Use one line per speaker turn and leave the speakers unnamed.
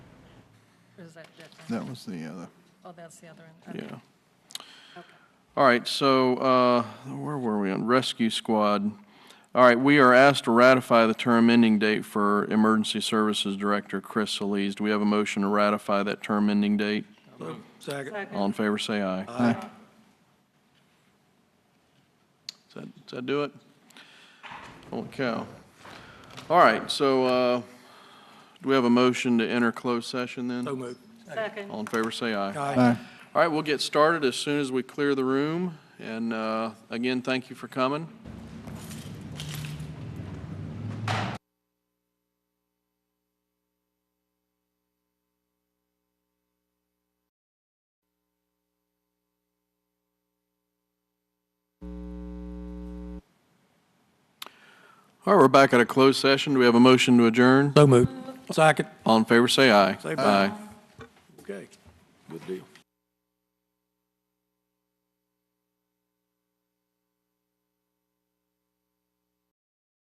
Is that different?
That was the other,
Oh, that's the other end. Okay.
yeah.
Okay.
All right, so, uh, where were we on rescue squad? All right, we are asked to ratify the term ending date for Emergency Services Director Chris Solis. Do we have a motion to ratify that term ending date?
Second.
All in favor, say aye. Aye. Does that, does that do it? Holy cow. All right, so, uh, do we have a motion to enter closed session then?
So moved.
Second.
All in favor, say aye.
Aye.
All right, we'll get started as soon as we clear the room. And uh, again, thank you for coming. All right, we're back at a closed session. Do we have a motion to adjourn?
So moved. Second.
All in favor, say aye.
Say aye. Okay, good deal.